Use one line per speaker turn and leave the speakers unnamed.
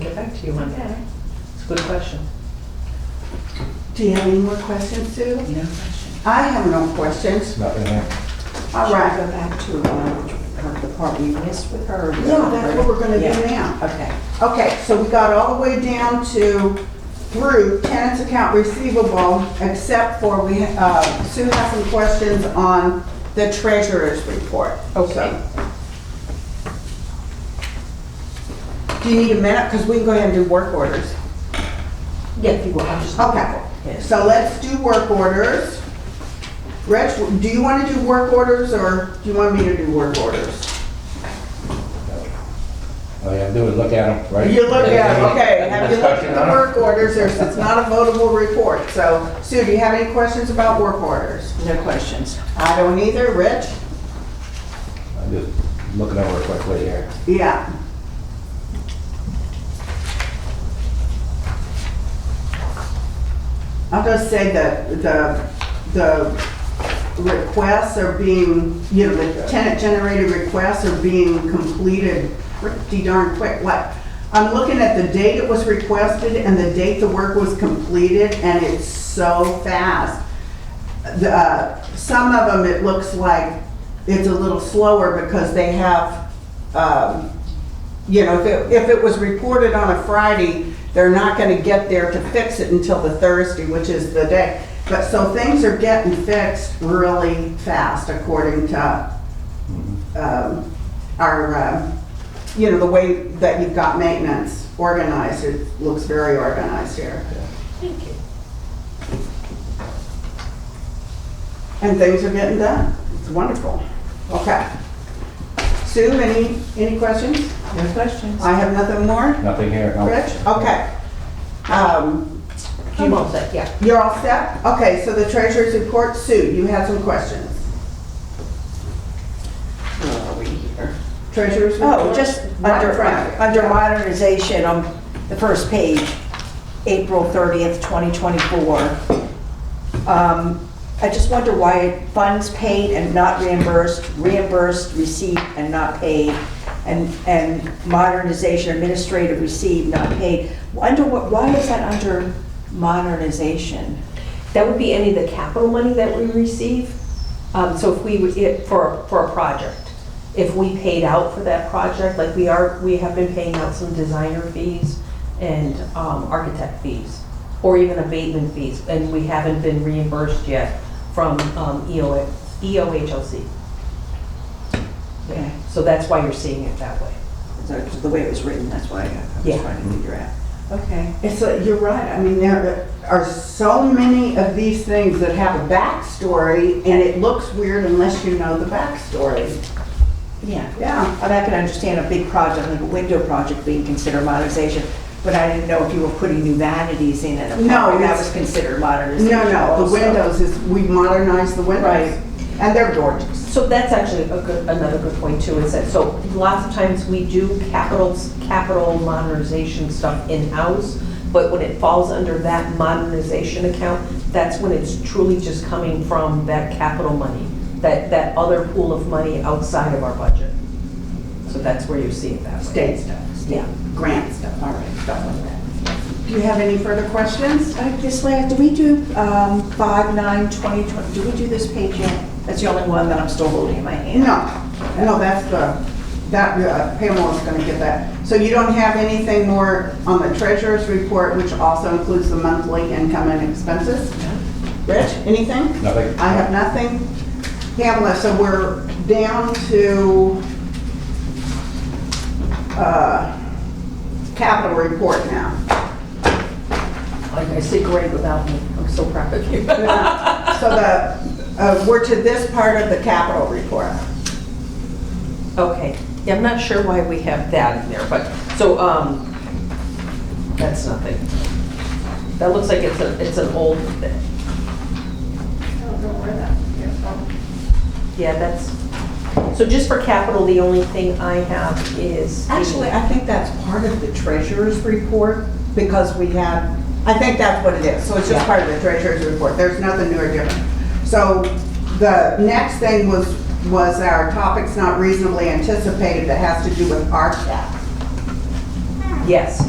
to you on that.
Okay.
It's a good question.
Do you have any more questions,
No
Sue?
question.
I have no questions.
Nothing there.
All
Should we
right.
Go back to um, her- the part we missed with her. or the
Yeah,
other
that's what we're gonna
part?
do
Yeah.
now.
Okay.
Okay, so we got all the way down to through tenants account receivable, except for we, uh, Sue has some questions on the treasurer's report. Okay. Do you need a minute? Because we can go ahead and do work orders.
Yeah, if you will, I'll
Oh,
just.
Okay,
Yes.
so let's do work orders. Rich, do you want to do work orders or do you want me to do work orders?
All you gotta do is look at them, right?
You look at, it, okay, have you looked
Discussion
at the
on
work orders, There's- it's not a votable report, so Sue, do you have any questions about work orders?
No questions.
I don't either, Rich?
them? I'm just looking over it quickly here.
Yeah. I'll just say that the, the requests are being, you know, the tenant generated requests are being completed pretty darn quick. Like, I'm looking at the date it was requested and the date the work was completed, and it's so fast. The, uh, some of them, it looks like it's a little slower because they have, um, you know, if it, if it was reported on a Friday, they're not gonna get there to fix it until the Thursday, which is the day. But, so things are getting fixed really fast according to, um, our, uh, you know, the way that you've got maintenance organized, it looks very organized here.
Thank you.
And things are getting done. It's wonderful. Okay. Sue, any, any questions?
No questions.
I have nothing more.
Nothing here, no?
Rich? Okay. Um,
You won't say, yeah.
You're all set? Okay, so the treasurer's report, Sue, you had some questions.
Where are we here?
Treasurer's report?
Oh, just
Right in
under,
front of you.
under modernization, on the first page, April 30th, 2024. Um, I just wonder why funds paid and not reimbursed, reimbursed, received and not paid, and, and modernization, administrative received, not paid. Under what, why is that under modernization?
That would be any of the capital money that we receive. Um, So if we, would- it- for, for a project, if we paid out for that project, like we are, we have been paying out some designer fees and um, architect fees, or even abatement fees, and we haven't been reimbursed yet from um, EO EOHLC.
Okay.
So that's why you're seeing it that way.
So, The way it was written, that's why I I was
Yeah.
trying to figure out. Okay.
It's, like- you're right. I mean, there are so many of these things that have a backstory, and it looks weird unless you know the backstory.
Yeah.
Yeah.
And I can understand a big project, like a window project being considered modernization, but I didn't know if you were putting new vanities in and
No,
that
it's-
was considered modernization
No, no, the
also.
windows is, we modernized the windows.
Right.
And they're gorgeous.
So that's actually a good, another good point too, is that, so lots of times we do capital, capital modernization stuff in-house, but when it falls under that modernization account, that's when it's truly just coming from that capital money, that, that other pool of money outside of our budget. So that's where you see it that way.
State stuff,
Yeah.
grant stuff, all right, stuff like that. Do you have any further questions?
Uh, This last, do we do um, five, nine, twenty, twenty, do we do this page yet? That's the only one that I'm still holding in my hand.
No, no, that's the, that, uh, Pamela's gonna get that. So you don't have anything more on the treasurer's report, which also includes the monthly income and expenses? Rich, anything?
Nothing?
I have nothing. Pamela, so we're down to, uh, capital report now.
Like I say, great without me, I'm so proud of you.
So the, uh, we're to this part of the capital report.
Okay, yeah, I'm not sure why we have that in there, but, so, um, that's nothing. That looks like it's a, it's an old thing. Yeah, that's, so just for capital, the only thing I have is. the-
Actually, I think that's part of the treasurer's report because we have, I think that's what it is. So it's just part of the treasurer's report. There's nothing new or different. So the next thing was, was our topics not reasonably anticipated that has to do with our tax.
Yes.